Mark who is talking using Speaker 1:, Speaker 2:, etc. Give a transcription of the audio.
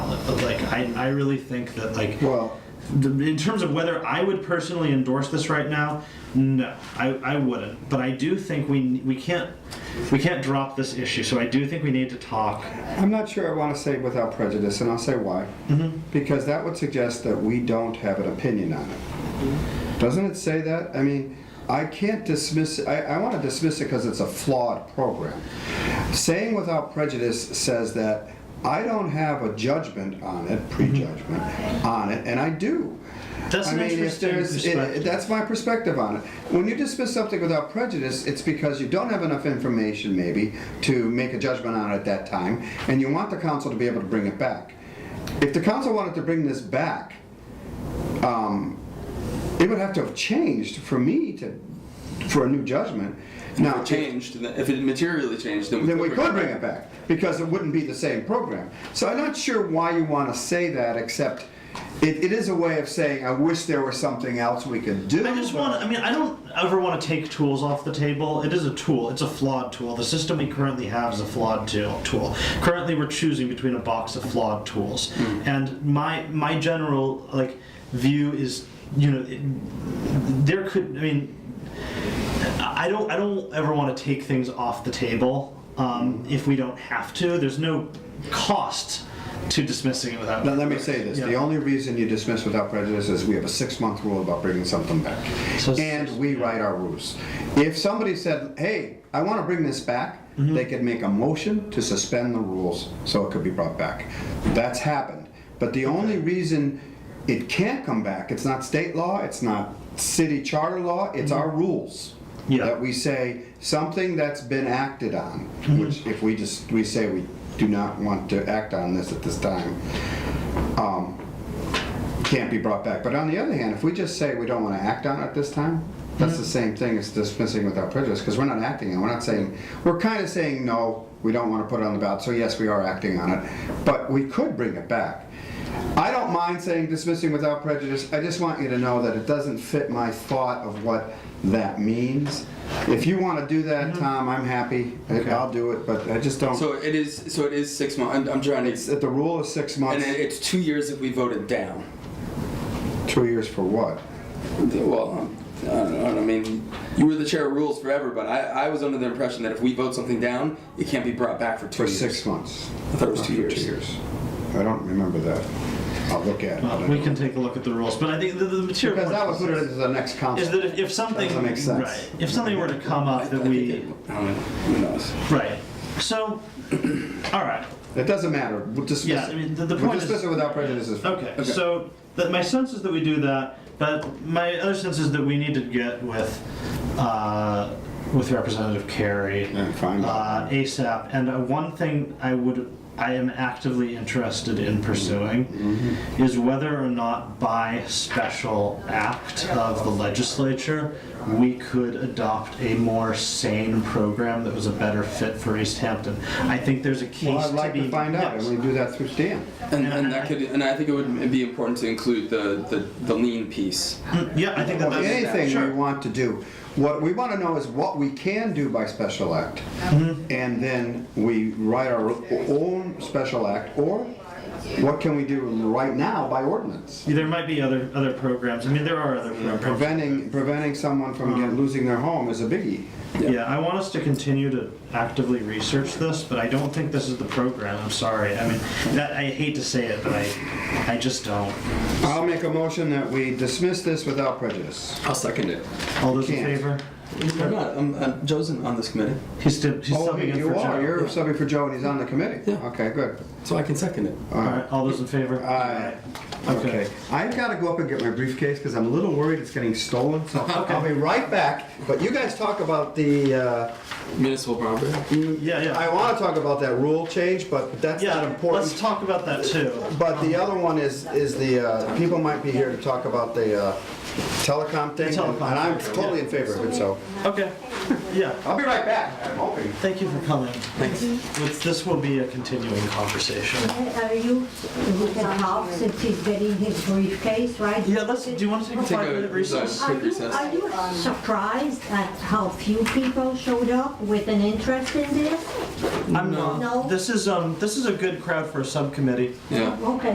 Speaker 1: but like I, I really think that like
Speaker 2: Well,
Speaker 1: the, in terms of whether I would personally endorse this right now, no, I, I wouldn't. But I do think we we can't we can't drop this issue. So I do think we need to talk.
Speaker 2: I'm not sure I want to say without prejudice, and I'll say why. Because that would suggest that we don't have an opinion on it. Doesn't it say that? I mean, I can't dismiss, I, I want to dismiss it because it's a flawed program. Saying without prejudice says that I don't have a judgment on it, prejudgment on it, and I do.
Speaker 1: That's
Speaker 2: I
Speaker 1: an
Speaker 2: mean, if
Speaker 1: interesting
Speaker 2: there's- it-
Speaker 1: perspective.
Speaker 2: That's my perspective on it. When you dismiss something without prejudice, it's because you don't have enough information, maybe, to make a judgment on it at that time, and you want the council to be able to bring it back. If the council wanted to bring this back, um, it would have to have changed for me to, for a new judgment. Now,
Speaker 3: changed, then- if it materially changed, then we
Speaker 2: then we
Speaker 3: could
Speaker 2: could bring it back, because it wouldn't be the same program. So I'm not sure why you want to say that, except it, it is a way of saying, I wish there was something else we could do.
Speaker 1: I just
Speaker 2: but-
Speaker 1: want to, I mean, I don't ever want to take tools off the table. It is a tool, it's a flawed tool. The system we currently have is a flawed tool. tool. Currently, we're choosing between a box of flawed tools. And my, my general, like, view is, you know, it, there could, I mean, I don't I don't ever want to take things off the table um, if we don't have to. There's no cost to dismissing it without.
Speaker 2: Now, let me say this, the
Speaker 1: Yeah.
Speaker 2: only reason you dismiss without prejudice is we have a six-month rule about bringing something back.
Speaker 1: So-
Speaker 2: And we write our rules. If somebody said, hey, I want to bring this back,
Speaker 1: Mm-hmm.
Speaker 2: they could make a motion to suspend the rules so it could be brought back. That's happened. But the only reason it can't come back, it's not state law, it's not city charter law, it's our rules.
Speaker 1: Mm-hmm. Yeah.
Speaker 2: That we say, something that's been acted on,
Speaker 1: Mm-hmm.
Speaker 2: which if we just, we say we do not want to act on this at this time, can't be brought back. But on the other hand, if we just say we don't want to act on it this time, that's
Speaker 3: Mm-hmm.
Speaker 2: the same thing as dismissing without prejudice, because we're not acting on it. We're not saying, we're kind of saying, no, we don't want to put it on the ballot, so yes, we are acting on it. But we could bring it back. I don't mind saying dismissing without prejudice. I just want you to know that it doesn't fit my thought of what that means. If you want to do that, Tom, I'm happy. I'll do it, but I just don't,
Speaker 3: Mm-hmm. So it is. So it is six months. I'm, I'm trying to.
Speaker 2: that the rule is six
Speaker 3: And
Speaker 2: months,
Speaker 3: it- it's two years if we voted down.
Speaker 2: two years for what?
Speaker 3: Well, I don't know. I mean, you were the chair of rules forever, but I, I was under the impression that if we vote something down, it can't be brought back for
Speaker 2: For
Speaker 3: two years.
Speaker 2: six months.
Speaker 3: I thought it was two
Speaker 2: For
Speaker 3: years.
Speaker 2: I don't remember that. I'll look at it.
Speaker 1: Well, we can take a look at the rules, but I think the, the material
Speaker 2: Because that would put it
Speaker 1: point
Speaker 2: into the next
Speaker 1: is
Speaker 2: council.
Speaker 1: that if, if something
Speaker 2: Doesn't make sense.
Speaker 1: right, if something were to come up
Speaker 3: I
Speaker 1: that
Speaker 3: think
Speaker 1: we
Speaker 3: it- I don't know. Who knows?
Speaker 1: right, so all right,
Speaker 2: It doesn't matter, we'll dismiss
Speaker 1: Yeah,
Speaker 2: it.
Speaker 1: I mean, the- the
Speaker 2: We'll
Speaker 1: point is-
Speaker 2: dismiss it without prejudice. is-
Speaker 1: okay. So that my sense is that we do that, but my other sense is that we need to get with uh, with Representative Carey.
Speaker 2: And find out.
Speaker 1: uh, ASAP. And uh, one thing I would, I am actively interested in pursuing
Speaker 2: Mm-hmm.
Speaker 1: is whether or not by special act of the legislature, we could adopt a more sane program that was a better fit for East Hampton. I think there's a case
Speaker 2: Well, I'd like
Speaker 1: be,
Speaker 2: to find out,
Speaker 1: Yes.
Speaker 2: and we do that through Dan.
Speaker 3: And, and that could. And I think it would be important to include the the, the lean piece.
Speaker 1: yeah, I think that
Speaker 2: Or
Speaker 1: that's
Speaker 2: anything we
Speaker 1: sure.
Speaker 2: want to do. What we want to know is what we can do by special act.
Speaker 1: Mm-hmm.
Speaker 2: And then we write our own special act, or what can we do right now by ordinance?
Speaker 1: There might be other other programs. I mean, there are other programs.
Speaker 2: Preventing, preventing someone from
Speaker 1: Uh-huh.
Speaker 2: get- losing their home is a biggie.
Speaker 1: Yeah, I want us to continue to actively research this, but I don't think this is the program. I'm sorry. I mean, that, I hate to say it, but I, I just don't.
Speaker 2: I'll make a motion that we dismiss this without prejudice.
Speaker 3: I'll second it.
Speaker 1: All those in
Speaker 2: Can't.
Speaker 1: favor?
Speaker 3: I'm not. I'm, I'm, Joe's in- on this committee,
Speaker 1: He's still, he's
Speaker 2: Oh,
Speaker 1: subbing in
Speaker 2: you
Speaker 1: for
Speaker 2: are,
Speaker 1: Joe.
Speaker 2: you're subbing for Joe and he's on the committee?
Speaker 3: Yeah.
Speaker 2: Okay, good.
Speaker 3: so I can second it.
Speaker 1: All right, all those in favor?
Speaker 2: Aye. Uh, Okay, I've gotta go up and get my briefcase because I'm a little worried it's getting stolen, so I'll be right back. But you guys talk about the, uh,
Speaker 3: Municipal property.
Speaker 1: Mm, Yeah,
Speaker 2: I
Speaker 1: yeah.
Speaker 2: wanna talk about that rule change, but that's not
Speaker 1: Yeah, let's
Speaker 2: important.
Speaker 1: talk about that too.
Speaker 2: But the other one is, is the, uh, people might be here to talk about the uh, telecom thing.
Speaker 1: telecom
Speaker 2: And I'm
Speaker 1: thing,
Speaker 2: totally
Speaker 1: yeah.
Speaker 2: in favor of it, so.
Speaker 1: Okay, yeah.
Speaker 2: I'll be right back. I'm hoping.
Speaker 1: Thank you for coming. Thanks. This will be a continuing conversation.
Speaker 4: Are you, who can help since he's getting his briefcase, right?
Speaker 1: Yeah, let's, do you want to take a
Speaker 3: Take a-
Speaker 1: five-minute recess?
Speaker 4: Are you,
Speaker 3: recess?
Speaker 4: are you surprised at how few people showed up with an interest in this?
Speaker 1: I'm not.
Speaker 4: No.
Speaker 1: This is, um, this is a good crowd for a subcommittee.
Speaker 3: Yeah.
Speaker 4: Okay.